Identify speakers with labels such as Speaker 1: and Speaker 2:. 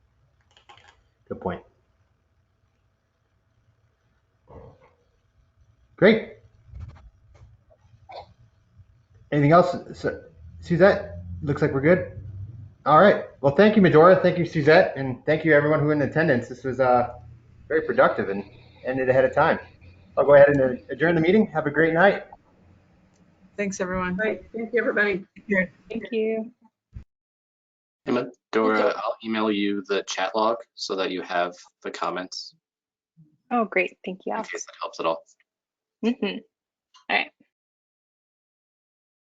Speaker 1: Good point. Great. Anything else? Su- Suzette, looks like we're good. All right. Well, thank you, Medora. Thank you, Suzette. And thank you, everyone who in attendance. This was uh, very productive and ended ahead of time. I'll go ahead and adjourn the meeting. Have a great night.
Speaker 2: Thanks, everyone.
Speaker 3: Right, thank you, everybody.
Speaker 4: Thank you.
Speaker 5: Hey, Dora, I'll email you the chat log so that you have the comments
Speaker 4: Oh, great. Thank you. Mm-hmm.
Speaker 5: in case that helps at all.
Speaker 4: Mhm. All right.